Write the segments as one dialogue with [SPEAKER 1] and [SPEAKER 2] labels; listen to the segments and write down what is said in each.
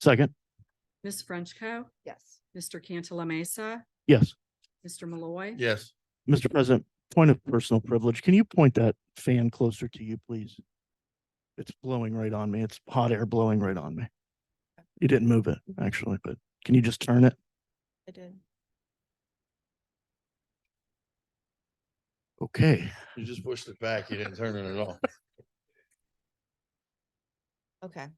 [SPEAKER 1] Second,
[SPEAKER 2] Ms. Frenchco.
[SPEAKER 3] Yes.
[SPEAKER 2] Mr. Cantala Mesa.
[SPEAKER 1] yes.
[SPEAKER 2] Mr. Malloy.
[SPEAKER 4] Yes.
[SPEAKER 1] Mr. President, point of personal privilege, can you point that fan closer to you, please? It's blowing right on me. It's hot air blowing right on me. You didn't move it, actually, but can you just turn it?
[SPEAKER 3] I did.
[SPEAKER 1] Okay.
[SPEAKER 4] You just pushed it back. You didn't turn it at all.
[SPEAKER 3] Okay.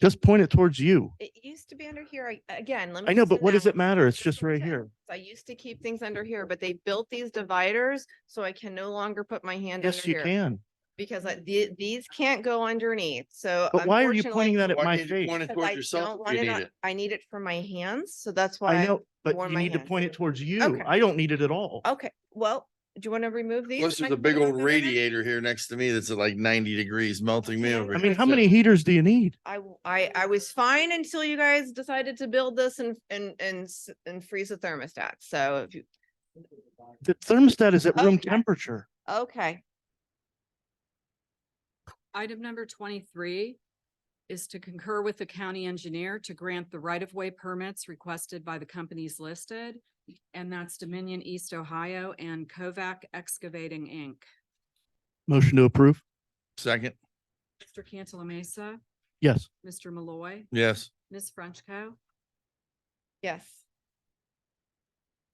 [SPEAKER 1] Just point it towards you.
[SPEAKER 3] It used to be under here. I- Again, let me.
[SPEAKER 1] I know,
[SPEAKER 3] just
[SPEAKER 1] but what does it
[SPEAKER 3] announce-
[SPEAKER 1] matter? It's
[SPEAKER 3] This
[SPEAKER 1] just
[SPEAKER 3] is
[SPEAKER 1] right
[SPEAKER 3] it.
[SPEAKER 1] here.
[SPEAKER 3] I used to keep things under here, but they built these dividers, so I can no longer put my hand under
[SPEAKER 1] Yes, you
[SPEAKER 3] here.
[SPEAKER 1] can.
[SPEAKER 3] Because I- the- these can't go underneath, so.
[SPEAKER 1] But why are you pointing that at
[SPEAKER 4] Why
[SPEAKER 1] my
[SPEAKER 4] can't you
[SPEAKER 1] face?
[SPEAKER 4] Point it
[SPEAKER 3] Because
[SPEAKER 4] towards
[SPEAKER 3] I don't
[SPEAKER 4] yourself if
[SPEAKER 3] want
[SPEAKER 4] you
[SPEAKER 3] it
[SPEAKER 4] need
[SPEAKER 3] on-
[SPEAKER 4] it.
[SPEAKER 3] I need it for my hands, so that's
[SPEAKER 1] I
[SPEAKER 3] why.
[SPEAKER 1] know, but
[SPEAKER 3] warm
[SPEAKER 1] you
[SPEAKER 3] my
[SPEAKER 1] need to
[SPEAKER 3] hands.
[SPEAKER 1] point it towards you.
[SPEAKER 3] Okay. Oh.
[SPEAKER 1] I don't need it at all.
[SPEAKER 3] Okay, well, do you want to remove these?
[SPEAKER 4] Plus,
[SPEAKER 3] and I
[SPEAKER 4] there's
[SPEAKER 3] can
[SPEAKER 4] a big
[SPEAKER 3] put it
[SPEAKER 4] old
[SPEAKER 3] back under there?
[SPEAKER 4] radiator here next to me that's at like ninety degrees melting me over.
[SPEAKER 1] I
[SPEAKER 4] here.
[SPEAKER 1] mean, how many heaters do you need?
[SPEAKER 3] I, w- I, I was fine until you guys decided to build this and, and, and, s- and freeze the thermostat, so. if you-
[SPEAKER 1] The thermostat is at room
[SPEAKER 3] Okay.
[SPEAKER 1] temperature.
[SPEAKER 3] Okay,
[SPEAKER 2] Item number twenty-three is to concur with the county engineer to grant the right-of-way permits requested by the companies listed. And that's Dominion East Ohio and Kovac Excavating, Inc.
[SPEAKER 1] Motion to approve?
[SPEAKER 4] Second,
[SPEAKER 2] Mr. Cantala Mesa,
[SPEAKER 1] Yes.
[SPEAKER 2] Mr. Malloy,
[SPEAKER 4] yes,
[SPEAKER 2] Ms. Frenchco.
[SPEAKER 3] yes,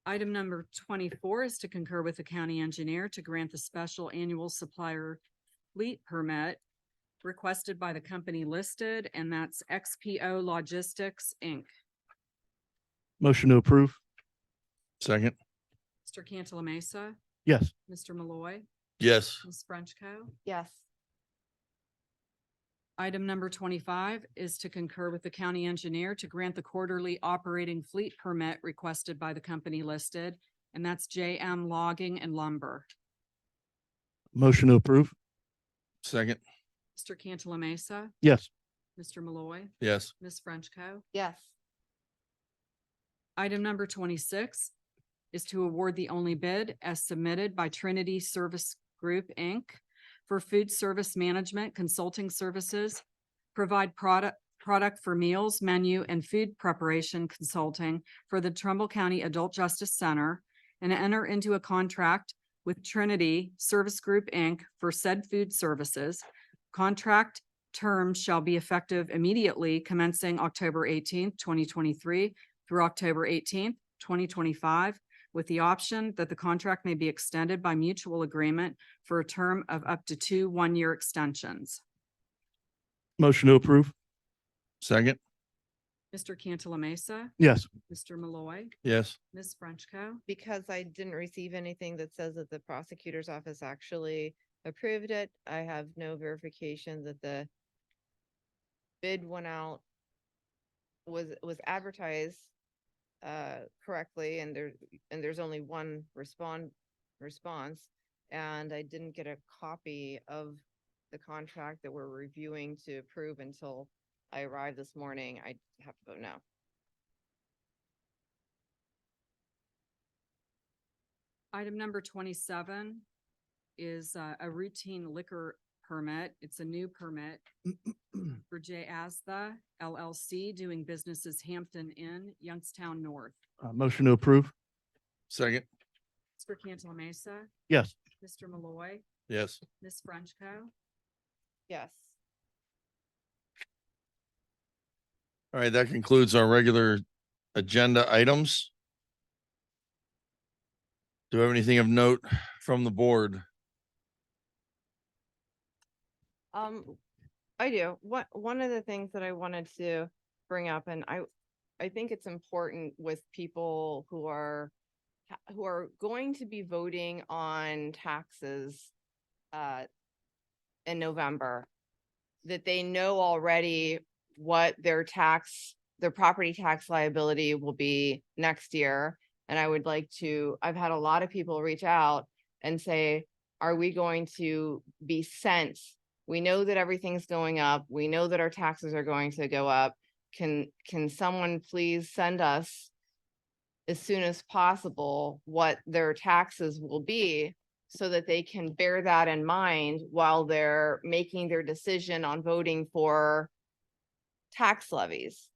[SPEAKER 2] Item number twenty-four is to concur with the county engineer to grant the special annual supplier fleet permit requested by the company listed, and that's XPO Logistics, Inc.
[SPEAKER 1] Motion to approve?
[SPEAKER 4] second,
[SPEAKER 2] Mr. Cantala Mesa,
[SPEAKER 1] Yes.
[SPEAKER 2] Mr. Malloy,
[SPEAKER 4] yes,
[SPEAKER 2] Ms. Frenchco.
[SPEAKER 3] yes,
[SPEAKER 2] Item number twenty-five is to concur with the county engineer to grant the quarterly operating fleet permit requested by the company listed, and that's JM Logging and Lumber.
[SPEAKER 1] Motion to approve?
[SPEAKER 4] second,
[SPEAKER 2] Mr. Cantala Mesa,
[SPEAKER 1] Yes.
[SPEAKER 2] Mr. Malloy,
[SPEAKER 4] yes,
[SPEAKER 2] Ms. Frenchco.
[SPEAKER 3] yes,
[SPEAKER 2] Item number twenty-six is to award the only bid as submitted by Trinity Service Group, Inc. for food service management consulting services, provide product, product for meals, menu, and food preparation consulting for the Trumbull County Adult Justice Center, and enter into a contract with Trinity Service Group, Inc. for said food services. Contract terms shall be effective immediately commencing October eighteenth, twenty twenty-three through October eighteenth, twenty twenty-five, with the option that the contract may be extended by mutual agreement for a term of up to two one-year extensions.
[SPEAKER 1] Motion to approve?
[SPEAKER 4] second,
[SPEAKER 2] Mr. Cantala Mesa,
[SPEAKER 1] Yes.
[SPEAKER 2] Mr. Malloy,
[SPEAKER 4] yes,
[SPEAKER 2] Ms. Frenchco.
[SPEAKER 3] because I didn't receive anything that says that the prosecutor's office actually approved it. I have no verification that the bid went out, was, was advertised uh, correctly, and there, and there's only one respond, response. And I didn't get a copy of the contract that we're reviewing to approve until I arrived this morning. I have to vote no.
[SPEAKER 2] Item number twenty-seven is uh, a routine liquor permit. It's a new permit for J. Asda LLC doing business as Hampton Inn, Youngstown North.
[SPEAKER 1] Uh, motion to approve?
[SPEAKER 4] second,
[SPEAKER 2] Mr. Cantala Mesa,
[SPEAKER 1] Yes.
[SPEAKER 2] Mr. Malloy,
[SPEAKER 4] yes,
[SPEAKER 2] Ms. Frenchco.
[SPEAKER 3] Yes.
[SPEAKER 4] all right, that concludes our regular agenda items. Do we have anything of note from the board?
[SPEAKER 3] Um, I do. One, one of the things that I wanted to bring up and I, I think it's important with people who are, ha- who are going to be voting on taxes, uh, in November, that they know already what their tax, their property tax liability will be next year. And I would like to, I've had a lot of people reach out and say, are we going to be sent we know that everything's going up. We know that our taxes are going to go up. Can, can someone please send us as soon as possible what their taxes will be so that they can bear that in mind while they're making their decision on voting for tax levies?